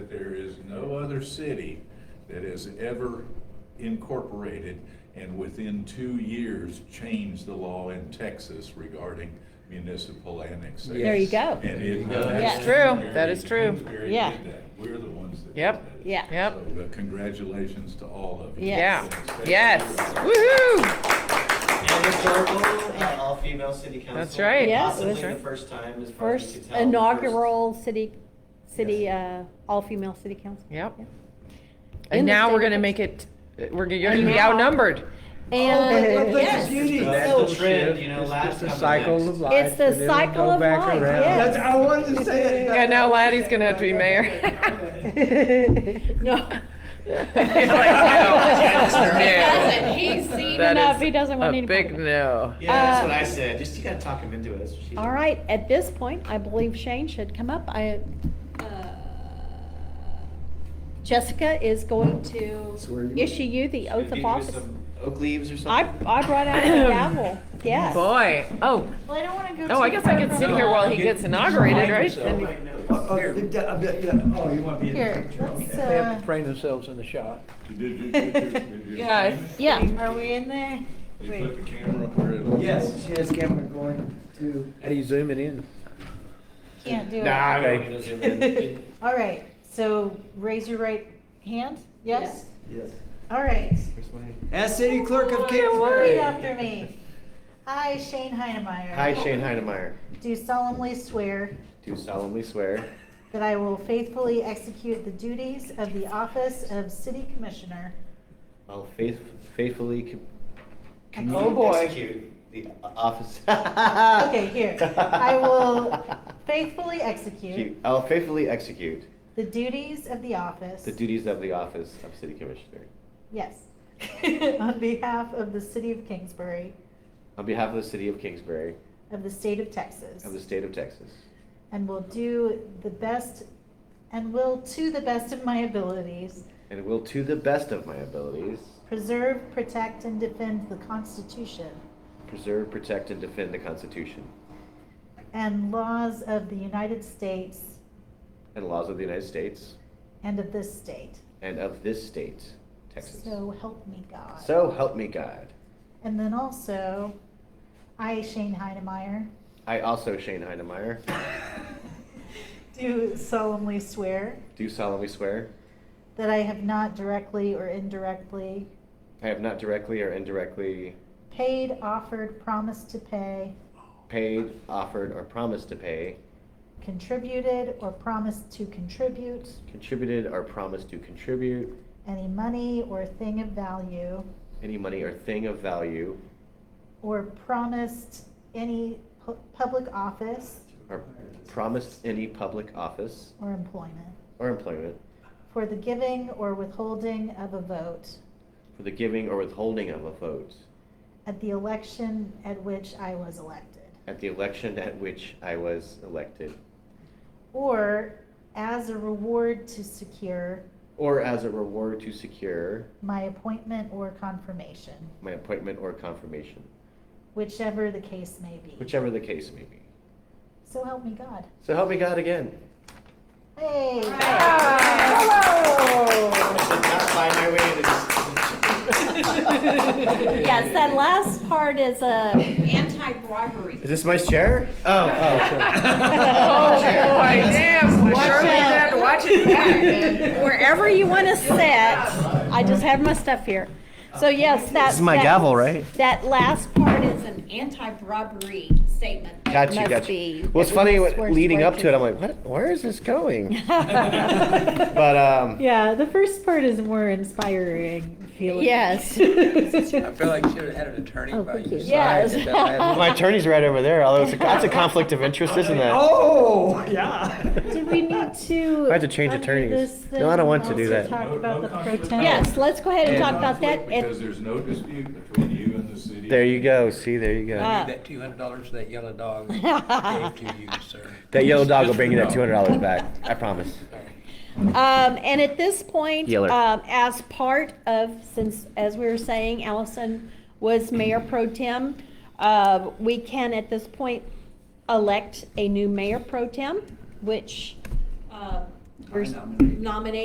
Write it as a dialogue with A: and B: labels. A: other city that has ever incorporated and within two years changed the law in Texas regarding municipal annexation.
B: There you go.
A: And it.
C: There you go.
B: That's
C: true. That is true.
A: Kingsbury did
B: Yeah.
A: that. We're the ones that.
C: Yep.
A: did that.
B: Yeah.
C: Yep.
A: So, uh, Congratulations to all of you.
C: Yeah,
B: Yes.
C: yes, woohoo!
D: And historical, uh, all female city council.
C: That's right.
B: Yeah,
D: Possibly
B: that's
D: the
C: right.
D: first time, as far as we
B: First
D: could tell. the
B: inaugural city, city, uh,
D: Yes.
B: all-female city council.
C: Yep.
B: In
C: And
B: the
C: now we're
B: state
C: gonna
B: of
C: make it, we're, gonna- you're gonna be
B: Now-
C: outnumbered.
B: And,
E: Oh,
F: but that's
B: yes.
F: beauty.
D: That's the
B: So-
D: trend, you know,
E: It's
D: last
E: just a
D: come
E: cycle
D: next.
E: of life.
B: It's the
E: and it'll
B: cycle
E: go
B: of
E: back
B: life,
E: around.
B: yes.
F: That's, I wanted to say it.
C: Yeah, now Laddie's gonna have to be mayor.
B: No.
C: doesn't.
B: He's seen
C: That
B: enough.
C: is
B: He doesn't want
C: a
B: any part
C: Big
B: of it.
C: no.
D: Yeah, that's what
B: Uh,
D: I said, just you gotta talk him into it, that's what she did.
B: All right, at this point, I believe Shane should come up. I, uh, Jessica is going to
E: Swear you-
B: issue you the
D: Gonna
B: oath
D: give
B: of
D: you
B: office.
D: some Oak leaves or
B: I,
D: something?
B: I brought out the gavel, yes.
C: Boy, oh,
B: Well, I don't want to go.
C: oh, I
B: too
C: guess I
B: far
C: can
B: from
C: sit
B: the
C: here while
B: mic.
C: he gets inaugurated, right? Then we-
E: Oh, oh, yeah, yeah, yeah. Oh, you want to be in the
B: Here,
E: picture?
B: let's,
E: okay. They have
B: uh,
E: to train themselves in the shot.
A: Did you- did you- did you-
C: Guys.
B: yeah.
G: Are we in there?
A: You put the camera where it'll.
E: Yes, she has camera going to. How do you zoom it in?
G: Can't do
E: Nah,
G: it.
D: okay.
G: All right, so raise your right hand, yes?
E: Yes.
G: All right.
E: As city clerk
C: Oh,
E: of
G: Repeat
E: Kingsbury.
G: after me. I, Shane Heinemeyer.
D: Hi, Shane Heinemeyer,
G: Do solemnly swear
D: do solemnly swear
G: that I will faithfully execute the duties of the office of city commissioner.
D: I'll faith, faithfully com-
G: Ex-
C: Oh, boy.
D: Execute the o- office. Ah.
G: Okay, here. I will faithfully execute
D: I'll faithfully execute
G: the duties of the office.
D: the duties of the office of city commissioner
G: Yes. On behalf of the city of Kingsbury,
D: on behalf of the city of Kingsbury
G: of the state of Texas.
D: of the state of Texas.
G: And will do the best, and will to the best of my abilities
D: And will to the best of my abilities
G: preserve, protect, and defend the Constitution
D: preserve, protect, and defend the Constitution
G: and laws of the United States
D: and laws of the United States
G: and of this state.
D: and of this state, Texas.
G: So help me God.
D: So help me God.
G: And then also, I, Shane Heinemeyer,
D: I also, Shane Heinemeyer,
G: do solemnly swear
D: do solemnly swear
G: that I have not directly or indirectly
D: I have not directly or indirectly
G: paid, offered, promised to pay,
D: paid, offered, or promised to pay,
G: contributed, or promised to contribute
D: contributed, or promised to contribute
G: any money or thing of value,
D: any money or thing of value,
G: or promised any pu- public office
D: or promised any public office
G: or employment
D: or employment
G: for the giving or withholding of a vote
D: for the giving or withholding of a vote
G: at the election at which I was elected,
D: at the election at which I was elected,
G: or as a reward to secure
D: or as a reward to secure
G: my appointment or confirmation,
D: my appointment or confirmation,
G: whichever the case may be.
D: whichever the case may be.
G: So help me God.
D: So help me God again.
G: Hey!
D: I should not find my way into this.
B: Yes, that last part is a,
H: Anti-bribery.
D: Is this my chair? Oh, oh, sure.
C: Oh, boy, damn, Shirley had to watch it back.
B: wherever you want to sit. I just have my stuff here. So yes, that.
D: This is my
B: that-
D: gavel, right?
B: That last part
H: Part
B: is
H: is an anti-bribery statement.
D: Got you,
B: Must
D: got
B: be.
D: you. Well, it's
B: Everyone
D: funny, what-
B: swears
D: leading
B: to
D: up to it, I'm
B: righteous.
D: like, what, where is this going? But,
E: uh,
D: um,
G: Yeah, the first part is more inspiring, feeling.
F: I
B: Yes.
F: feel like you should have had an attorney
B: Oh,
F: by
B: thank
F: your
B: you.
F: side.
B: Yes.
F: if that happened.
D: my attorney's right over there, although it's a, that's a conflict of interest, isn't that?
E: Oh, yeah.
G: Do we need to?
D: I had to change
G: under
D: attorneys.
G: this
D: No, I don't want to
G: thing,
D: do
G: also
D: that.
G: Talk
A: No-
G: about
A: no
G: the pro
A: conflict.
G: tem?
B: Yes, let's go ahead and talk about that.
A: conflict Because
B: at-
A: there's no dispute between you and the city.
D: There you go, see, there you go.
B: Ah.
F: That two hundred dollars that yellow dog gave to you, sir.
D: That yellow dog will bring you that two hundred dollars back, I promise.
B: Um, and at this point,
D: Yeller.
B: um, as part of, since, as we were saying, Allison was mayor pro tem, uh, we can at this point elect a new mayor pro tem, which, uh,
F: I
B: we're
F: nominate.
B: nominating